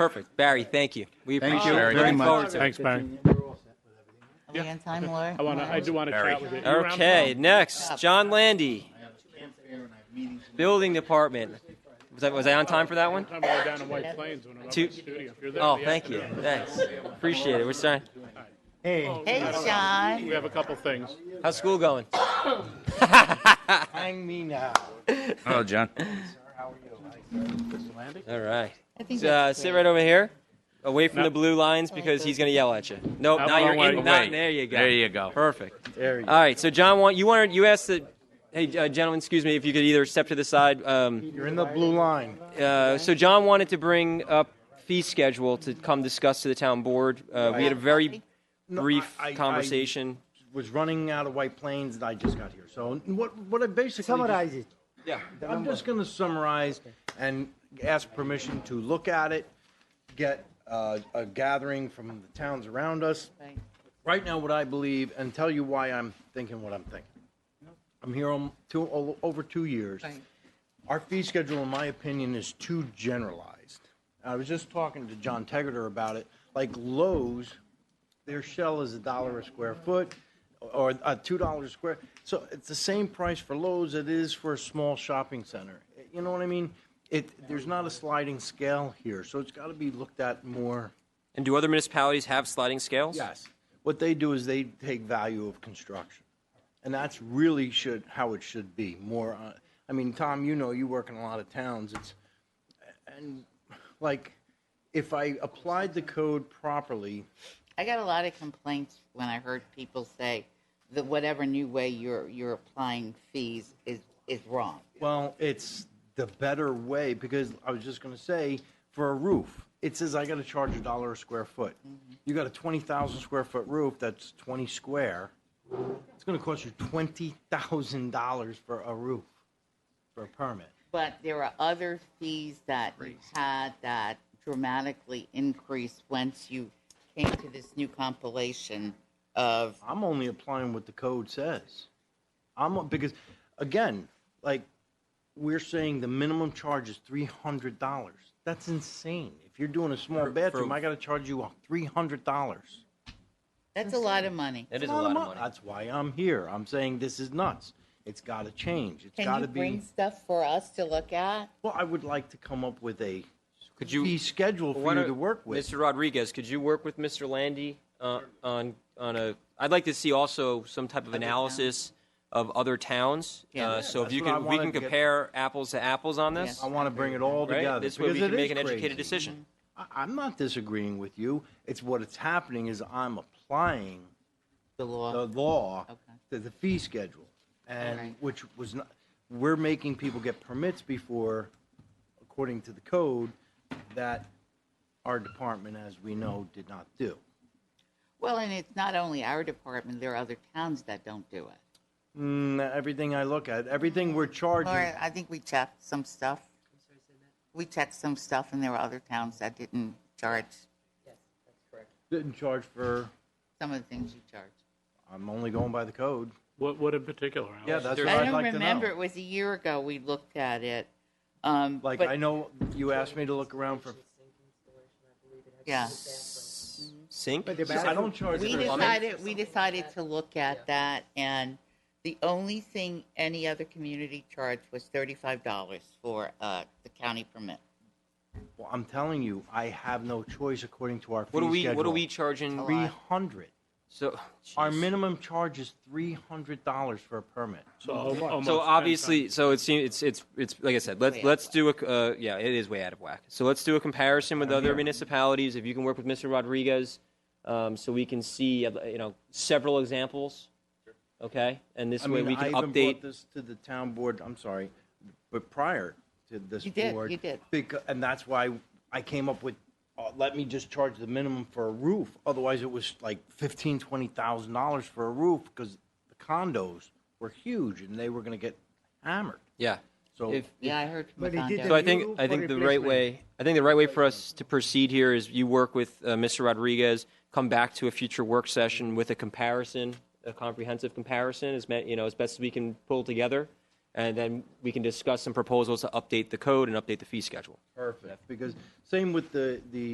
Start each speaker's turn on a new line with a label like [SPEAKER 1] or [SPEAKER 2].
[SPEAKER 1] Perfect. Barry, thank you. We
[SPEAKER 2] Thank
[SPEAKER 1] appreciate
[SPEAKER 2] you
[SPEAKER 1] it.
[SPEAKER 2] very
[SPEAKER 1] Looking
[SPEAKER 2] much.
[SPEAKER 1] forward to it.
[SPEAKER 3] Thanks, Barry.
[SPEAKER 4] Are we on time, Laura?
[SPEAKER 3] I want to, I do want to
[SPEAKER 2] Barry.
[SPEAKER 3] chat with you. You around
[SPEAKER 1] Okay,
[SPEAKER 3] tomorrow?
[SPEAKER 1] next, John Landy, Building Department. Was I, was I on time for that one?
[SPEAKER 3] I'm all down in White Plains when I'm up
[SPEAKER 1] Two-
[SPEAKER 3] in the studio. If you're there
[SPEAKER 1] Oh,
[SPEAKER 3] in the
[SPEAKER 1] thank you.
[SPEAKER 3] afternoon.
[SPEAKER 1] Thanks. Appreciate it. We're starting.
[SPEAKER 2] Hey,
[SPEAKER 4] Hey, John.
[SPEAKER 3] We have a couple things.
[SPEAKER 1] How's school going?
[SPEAKER 2] hang me now.
[SPEAKER 5] Hello, John.
[SPEAKER 1] All right.
[SPEAKER 4] I think
[SPEAKER 1] Uh,
[SPEAKER 4] that's
[SPEAKER 1] sit
[SPEAKER 4] great.
[SPEAKER 1] right over here, away from
[SPEAKER 3] No.
[SPEAKER 1] the blue lines because he's going to yell at you. Nope,
[SPEAKER 3] Out
[SPEAKER 1] now you're
[SPEAKER 3] my way.
[SPEAKER 1] in. Not,
[SPEAKER 5] Away.
[SPEAKER 1] there you go.
[SPEAKER 5] There you go.
[SPEAKER 1] Perfect.
[SPEAKER 2] There you
[SPEAKER 1] All right. So John, want you wanted you asked the. Hey, uh, gentlemen, excuse me. If you could either step to the side. Um,
[SPEAKER 2] You're in the blue line.
[SPEAKER 1] uh, so John wanted to bring up fee schedule to come discuss to the town board. Uh, we had a very
[SPEAKER 2] No,
[SPEAKER 1] brief
[SPEAKER 2] I- I- I-
[SPEAKER 1] conversation.
[SPEAKER 2] Was running out of White Plains and I just got here. So what, what I basically. just-
[SPEAKER 6] Summarize it.
[SPEAKER 1] yeah.
[SPEAKER 2] I'm just going to summarize and ask permission to look at it, get uh, a gathering from the towns around us,
[SPEAKER 4] Right.
[SPEAKER 2] right now what I believe and tell you why I'm thinking what I'm thinking. I'm here om- two, o- over two years.
[SPEAKER 4] Right.
[SPEAKER 2] Our fee schedule, in my opinion, is too generalized. I was just talking to John Tegater about it. Like Lowe's, their shell is a dollar a square foot or uh, two dollars a square. So it's the same price for Lowe's it is for a small shopping center. You know what I mean? It, there's not a sliding scale here, so it's got to be looked at more
[SPEAKER 1] And do other municipalities have sliding scales?
[SPEAKER 2] Yes. What they do is they take value of construction. And that's really should, how it should be, more, uh, I mean, Tom, you know, you work in a lot of towns, it's, and, like, if I applied the code properly,
[SPEAKER 4] I got a lot of complaints when I heard people say that whatever new way you're you're applying fees is is wrong.
[SPEAKER 2] well, it's the better way, because I was just gonna say, for a roof, it says I gotta charge a dollar a square foot. You got a twenty thousand square foot roof, that's twenty square, it's gonna cost you twenty thousand dollars for a roof, for a permit.
[SPEAKER 4] But there are other fees that you had that dramatically increased once you came to this new compilation of
[SPEAKER 2] I'm only applying what the code says. I'm because again, like we're saying the minimum charge is three hundred dollars. That's insane. If you're doing a small bathroom, I gotta charge you three hundred dollars.
[SPEAKER 4] that's a lot of money.
[SPEAKER 1] That is a lot of money.
[SPEAKER 2] That's why I'm here. I'm saying this is nuts. It's gotta change. It's
[SPEAKER 4] Can
[SPEAKER 2] gotta
[SPEAKER 4] you bring
[SPEAKER 2] be.
[SPEAKER 4] stuff for us to look at?
[SPEAKER 2] Well, I would like to come up with a
[SPEAKER 1] Could you?
[SPEAKER 2] fee schedule
[SPEAKER 1] Why
[SPEAKER 2] for you
[SPEAKER 1] don't-
[SPEAKER 2] to work with.
[SPEAKER 1] Mr. Rodriguez, could you work with Mr. Landy uh, on, on a, I'd like to see also some type of analysis of other towns.
[SPEAKER 4] Yeah.
[SPEAKER 1] Uh, So if
[SPEAKER 2] That's
[SPEAKER 1] you
[SPEAKER 2] what I
[SPEAKER 1] can, we
[SPEAKER 2] wanted
[SPEAKER 1] can
[SPEAKER 2] to get-
[SPEAKER 1] compare apples to apples on this,
[SPEAKER 2] I wanna bring it all together.
[SPEAKER 1] right? This way we
[SPEAKER 2] because
[SPEAKER 1] can
[SPEAKER 2] it
[SPEAKER 1] make an
[SPEAKER 2] is
[SPEAKER 1] educated
[SPEAKER 2] crazy.
[SPEAKER 1] decision.
[SPEAKER 2] I- I'm not disagreeing with you. It's what it's happening is I'm applying
[SPEAKER 4] The law.
[SPEAKER 2] the law
[SPEAKER 4] Okay.
[SPEAKER 2] to the fee schedule, and
[SPEAKER 4] Alright.
[SPEAKER 2] which was not, we're making people get permits before, according to the code, that our department, as we know, did not do.
[SPEAKER 4] Well, and it's not only our department, there are other towns that don't do it.
[SPEAKER 2] Mm, everything I look at, everything we're charging,
[SPEAKER 4] Laura, I think we checked some stuff. We checked some stuff and there were other towns that didn't charge
[SPEAKER 2] didn't charge for,
[SPEAKER 4] some of the things you charge.
[SPEAKER 2] I'm only going by the code.
[SPEAKER 3] What, what in particular, Alex?
[SPEAKER 2] Yeah, that's what
[SPEAKER 4] I
[SPEAKER 2] I'd
[SPEAKER 4] don't
[SPEAKER 2] like to
[SPEAKER 4] remember, it
[SPEAKER 2] know.
[SPEAKER 4] was a year ago we looked at it. Um,
[SPEAKER 2] Like,
[SPEAKER 4] but-
[SPEAKER 2] I know you asked me to look around for,
[SPEAKER 4] Yeah,
[SPEAKER 1] Sink?
[SPEAKER 2] So I don't charge
[SPEAKER 4] we
[SPEAKER 2] for,
[SPEAKER 4] decided, we decided to look at that and the only thing any other community charged was thirty-five dollars for, uh, the county permit.
[SPEAKER 2] Well, I'm telling you, I have no choice according to our fee
[SPEAKER 1] What are
[SPEAKER 2] schedule.
[SPEAKER 1] we, what are we charging?
[SPEAKER 2] Three hundred.
[SPEAKER 1] So,
[SPEAKER 2] Our
[SPEAKER 1] Jeez.
[SPEAKER 2] minimum charge is three hundred dollars for a permit.
[SPEAKER 3] So al- almost
[SPEAKER 1] So
[SPEAKER 3] ten
[SPEAKER 1] obviously, so it seems, it's, it's, it's, like I said, let's,
[SPEAKER 4] Way out of
[SPEAKER 1] let's do a, uh, yeah, it is way out of whack. So let's do a comparison with other municipalities, if you can work with Mr. Rodriguez, um, so we can see, uh, you know, several examples, okay? And this
[SPEAKER 2] I
[SPEAKER 1] way
[SPEAKER 2] mean,
[SPEAKER 1] we
[SPEAKER 2] I
[SPEAKER 1] can
[SPEAKER 2] even brought
[SPEAKER 1] update,
[SPEAKER 2] this to the town board, I'm sorry, but prior to this
[SPEAKER 4] You did,
[SPEAKER 2] board.
[SPEAKER 4] you did.
[SPEAKER 2] becau- and that's why I came up with, uh, let me just charge the minimum for a roof. Otherwise, it was like fifteen, twenty thousand dollars for a roof because the condos were huge and they were gonna get hammered.
[SPEAKER 1] yeah.
[SPEAKER 2] So
[SPEAKER 1] If-
[SPEAKER 4] Yeah, I heard from
[SPEAKER 6] But he did
[SPEAKER 4] Tondo.
[SPEAKER 1] So I
[SPEAKER 6] New
[SPEAKER 1] think, I
[SPEAKER 6] for
[SPEAKER 1] think the right
[SPEAKER 6] replacement.
[SPEAKER 1] way, I think the right way for us to proceed here is you work with uh, Mr. Rodriguez, come back to a future work session with a comparison, a comprehensive comparison, as, me- you know, as best as we can pull together. and then we can discuss some proposals to update the code and update the fee schedule.
[SPEAKER 2] Perfect, because same with the, the